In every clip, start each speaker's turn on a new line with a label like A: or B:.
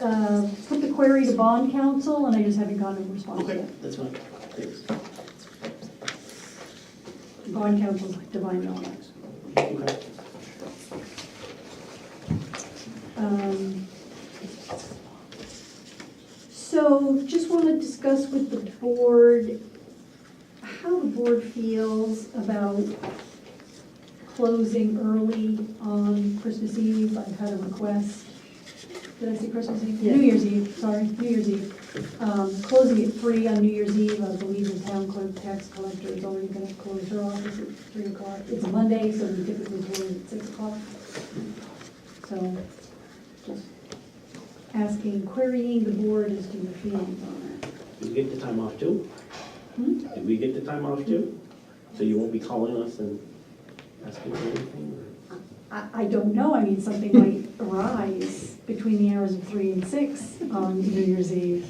A: uh, put the query to bond council, and I just haven't gotten a response
B: Okay,
A: yet.
B: that's fine, thanks.
A: Bond council's divine knowledge.
B: Okay.
A: Um, So just want to discuss with the board, how the board feels about closing early on Christmas Eve. I've had a request, did I say Christmas Eve? New Year's Eve, sorry, New Year's Eve. Um, Closing at three on New Year's Eve, I believe the town clerk, tax collector is already going to close her office at three o'clock. It's a Monday, so we typically close at six o'clock. So just asking, querying the board as to your feelings on that.
B: Did we get the time off too?
A: Hmm?
B: Did we get the time off too? So you won't be calling us and asking for anything?
A: I, I don't know, I mean, something might arise between the hours of three and six on New Year's Eve.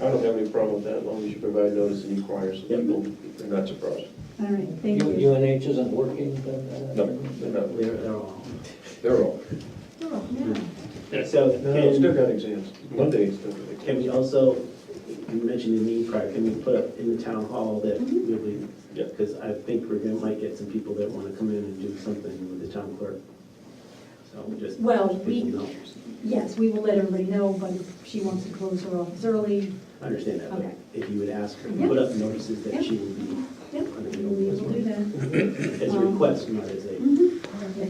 C: I don't have any problem with that, as long as you provide notice and you inquire, so
B: Yep.
C: people, they're not surprised.
A: All right, thank you.
D: UNH isn't working? uh,
C: No, they're not,
B: or- They're, they're all.
C: they're all,
A: Oh, yeah.
B: So
C: no, no, still
B: can,
C: got exams, Monday is still got exams.
B: can we also, you mentioned the need prior, can we put up in the town hall that
A: Mhm.
B: we'll be?
C: Yeah.
B: Because I think we're gonna, might get some people that wanna come in and do something with the town clerk. So we just.
A: Well,
B: people
A: we,
B: know.
A: yes, we will let everybody know, but if she wants to close her office early,
B: I understand that,
A: Okay.
B: but if you would ask her,
A: Yeah.
B: put up notices
A: Yeah.
B: that she will be,
A: yep,
B: I
A: we
B: mean, you know,
A: will do that.
B: as a
A: Um,
B: request, not as a.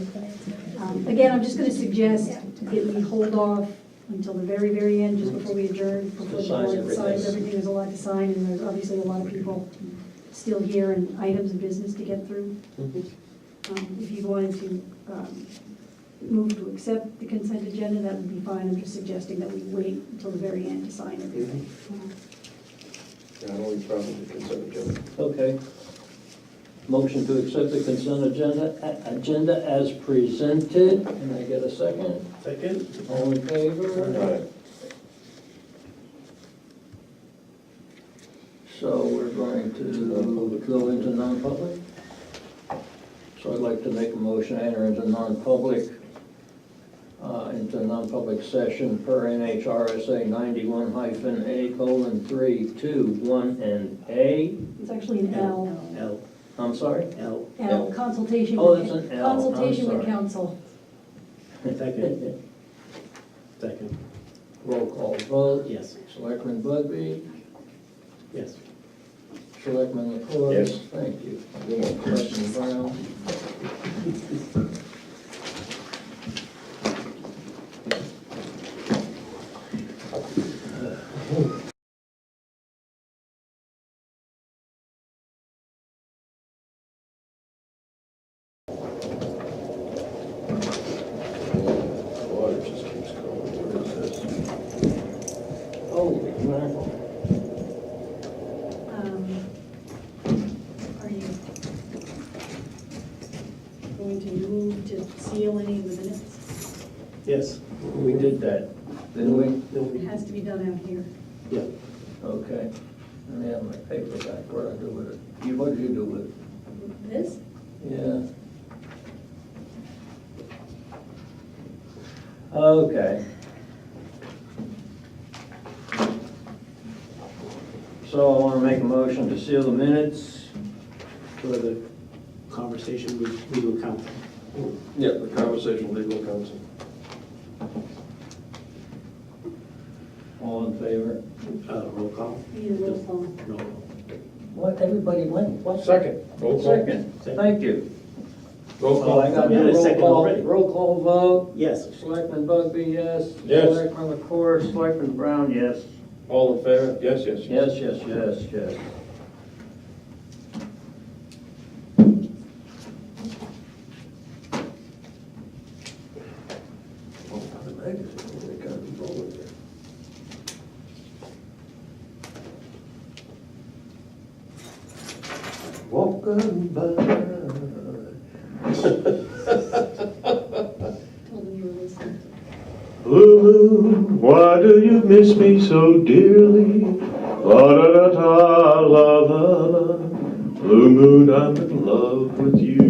A: Um, Again, I'm just gonna suggest that we hold off until the very, very end, just before we adjourn, before the
D: Just sign
A: board signs
D: everything.
A: everything, there's a lot to sign, and there's obviously a lot of people still here and items of business to get through.
D: Mm-hmm.
A: Um, If you wanted to um, move to accept the consent agenda, that would be fine, I'm just suggesting that we wait until the very end to sign everything.
D: Mm-hmm.
C: Yeah, I don't have any problem with consent agenda.
D: Okay. Motion to accept the consent agenda, a- agenda as presented. Can I get a second?
B: Second?
D: All in favor? So we're going to go into non-public? So I'd like to make a motion, to enter into non-public, uh, into non-public session per NHRSA ninety-one hyphen A colon three, two, one, and A.
A: It's actually an L,
B: L,
D: I'm sorry?
B: L,
A: L, consultation.
D: Oh,
A: with-
D: that's an L, I'm
A: Consultation with
D: sorry.
A: council.
B: second, second,
D: Roll call vote.
B: yes,
D: Selectman Budby,
B: yes.
D: Selectman LaCour.
C: Yes.
D: Thank you. Selectman Brown.
C: Water just keeps going, what is this?
D: Holy mackerel.
A: Um, Are you going to move to seal any of the minutes?
B: Yes, we did that.
D: Didn't we?
B: Then
A: It
B: we-
A: has to be done out here.
B: Yeah,
D: Okay. Let me have my paper back. What did I do with it? You, what did you do with it?
A: This?
D: Yeah. Okay. So I want to make a motion to seal the minutes.
B: for the conversation with legal counsel.
C: Yeah, the conversation with legal counsel.
D: All in favor?
B: Uh, roll call?
A: We need a roll call.
B: No, roll.
D: What, everybody went, what?
C: Second. Roll call.
D: Second, thank you.
C: Roll
D: So I
C: call.
D: got
B: We had a
D: roll
B: second
D: call,
B: already.
D: roll call vote.
B: Yes,
D: Selectman Bugby, yes.
C: Yes.
D: Selectman LaCour, Selectman Brown, yes.
C: All in favor? Yes, yes, yes.
D: Yes, yes, yes, yes.
C: Oh, the magazine, they got it rolling there. Walking by.
A: Told them you were listening.
C: Lulu, why do you miss me so dearly? La da da da, la la la. Blue moon, I'm in love with you.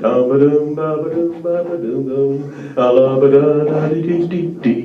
C: Dum ba dum, ba ba dum, ba ba dum dum. A la ba da da dee dee dee